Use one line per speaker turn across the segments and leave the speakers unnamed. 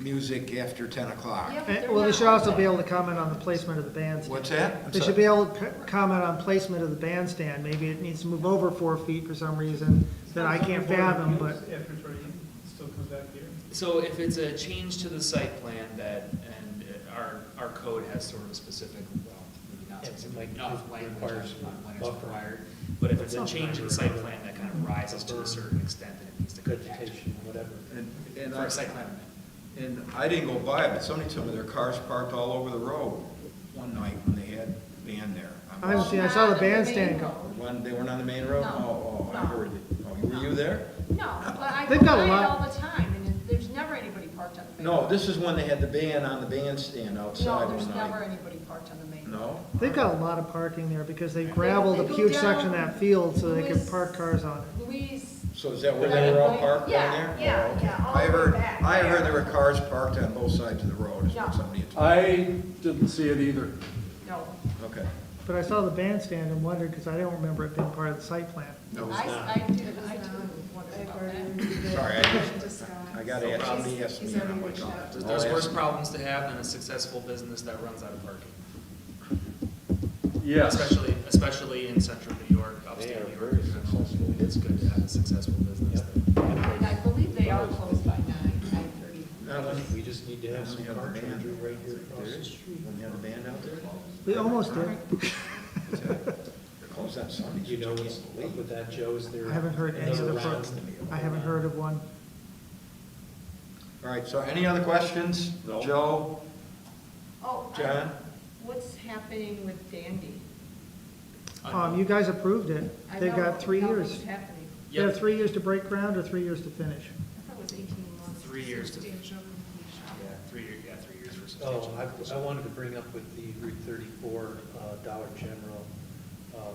music after 10 o'clock.
Yep.
And- Eh, Well, they should also be able to comment on the placement of the bandstand.
What's that? I'm
They
sorry.
should be able to c- comment on placement of the bandstand. Maybe it needs to move over four feet for some reason that I can't fathom, but
After thirty, it still comes back here.
So if it's a change to the site plan that, and uh, our, our code has sort of a specific, well, maybe not
Yeah, it
specific,
might
enough language
requires
on when it's
buffer.
required. But if it's a
Some
change in the site plan that kind of rises to a certain extent, then it needs to go back
vegetation, whatever.
And, and
for
I,
a site plan amendment.
and I didn't go by it, but somebody told me their cars parked all over the road one night when they had band there.
I don't see, I saw the bandstand go.
When, they weren't on the main road?
No.
Oh, oh, I
No.
heard it. Oh, were you there?
No, but I go
They've got a
by it
lot-
all the time, and it- there's never anybody parked on the main.
No,
road.
this is when they had the band on the bandstand outside
No, there's
one
never
night.
anybody parked on the main. road.
No?
they've got a lot of parking there because they gravelled
They
a
go
huge section of
down
that field so they could
Lewis-
park cars on it.
Louise,
So is that where they were all parked
Yeah,
down there?
yeah,
Oh, okay.
yeah, all
I
the way
heard,
back.
I heard there were cars parked on both sides of the road, is
No.
what somebody had told
I didn't see it either.
no,
me. Okay.
But I saw the bandstand and wondered because I don't remember it being part of the site plan.
No,
I, I did, I do wonder about that.
Sorry, I just, I gotta ask, somebody asked me, and I'm like, oh.
There's-
I'll ask
There's worse
them.
problems to have than a successful business that runs out of parking.
Yes,
Especially, especially in central New York,
They
upstate
are
New York.
very
in general.
successful
It's good to have a successful business.
And I believe they are closed by nine, nine thirty.
Not when-
We just need to have some
When you have
car
the band,
charger right here
like,
across
there
the
is.
street.
When you have the band out there?
We almost did.
It's at- They're closed on Sundays.
You know what's up with that, Joe, is there?
I haven't heard any of the,
another
pro-
round?
I haven't heard of one.
All right, so any other questions?
No.
Joe,
Oh, I-
John?
what's happening with Dandy?
Um, you guys approved it.
I
They've
know-
got three
I know
years.
what's happening.
They have
Yep.
three years to break ground or three years to finish.
I thought it was eighteen months.
Three years to-
Substantial completion.
Yeah, three year, yeah, three years for substantial.
Oh, I, I wanted to bring up with the Route thirty-four, uh, Dollar General, um,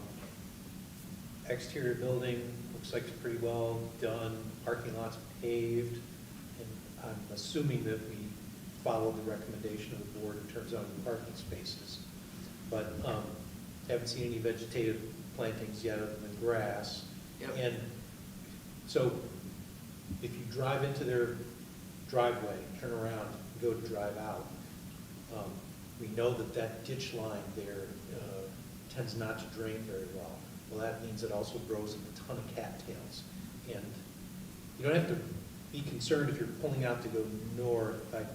exterior building, looks like it's pretty well done, parking lot's paved, and I'm assuming that we follow the recommendation of the board in terms of the parking spaces. But, um, haven't seen any vegetative plantings yet other than grass.
Yep.
And so if you drive into their driveway, turn around, go to drive out, um, we know that that ditch line there uh, tends not to drain very well. Well, that means it also grows a ton of cattails. And you don't have to be concerned if you're pulling out to go north, I,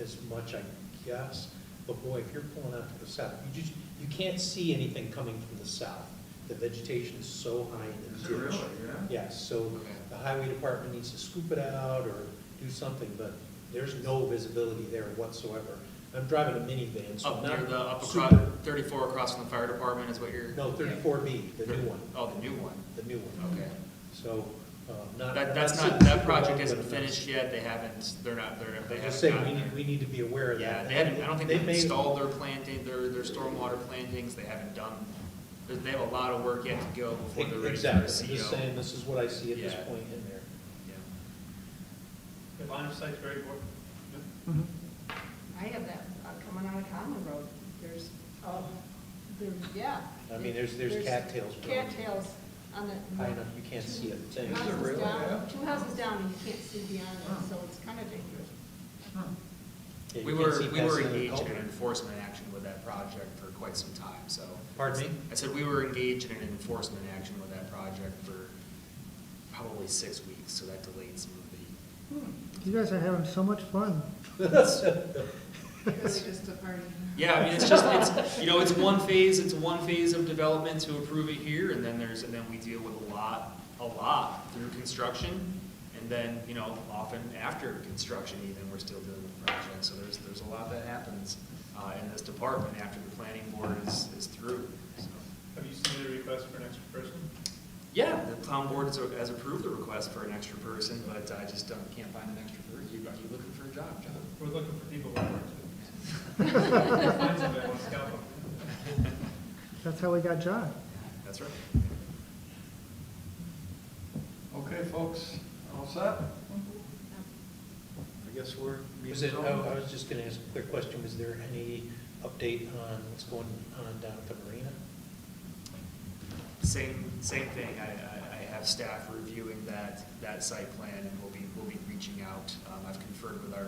as much, I guess. But boy, if you're pulling out to the south, you just, you can't see anything coming from the south. The vegetation is so high in the ditch. Yes, so the highway department needs to scoop it out or do something, but there's no visibility there whatsoever. I'm driving a minivan, so
Up
I'm
near the,
not
up across,
super.
thirty-four across from the fire department is what you're?
No, thirty-four B, the new one,
Oh, the new one,
the new one.
okay.
So, uh, not.
That, that's not,
super-
that
super long,
project
but
isn't
it's-
finished yet, they haven't, they're not, they're, they
I'm
haven't
just saying, we
gotten
need,
there.
we need to be aware of
Yeah,
that.
they haven't, I don't think they've
may-
installed their planting, their, their stormwater plantings, they haven't done, they- they have a lot of work yet to go before they're ready for a
Exactly, I'm just
CO.
saying, this is what I see at this
Yeah.
point in there.
Yeah.
The line of sight's very important.
Mm-hmm.
Mhm.
I have that, uh, coming on a common road, there's, oh, there, yeah.
I mean, there's- there's cattails growing.
Cattails on the.
High enough, you can't see a thing.
Two
Is it
houses
really
down,
bad?
two houses down, and you can't see beyond it, so it's kind of dangerous.
Yeah, you
We
can't
were,
see
we
past
were
the other
engaged in
culvert.
an enforcement action with that project for quite some time, so.
Pardon me?
I said we were engaged in an enforcement action with that project for probably six weeks, so that delayed some of the
You guys are having so much fun.
Yeah, I mean, it's just, it's, you know, it's one phase, it's one phase of development to approve it here, and then there's, and then we deal with a lot, a lot through construction, and then, you know, often after construction even, we're still dealing with projects, so there's, there's a lot that happens, uh, in this department after the planning board is, is through, so.
Have you submitted a request for an extra person?
Yeah, the town board has, has approved the request for an extra person, but I just don't, can't find an extra person, you, are you looking for a job, John?
We're looking for people who work. Find somebody, want to scout them.
That's how we got John.
That's right.
Okay, folks, all set? I guess we're.
Was it, oh, I I was just gonna ask a quick question, was there any update on what's going on down at the marina?
Same, same thing, I, I, I have staff reviewing that, that site plan, and we'll be, we'll be reaching out. Um, I've conferred with our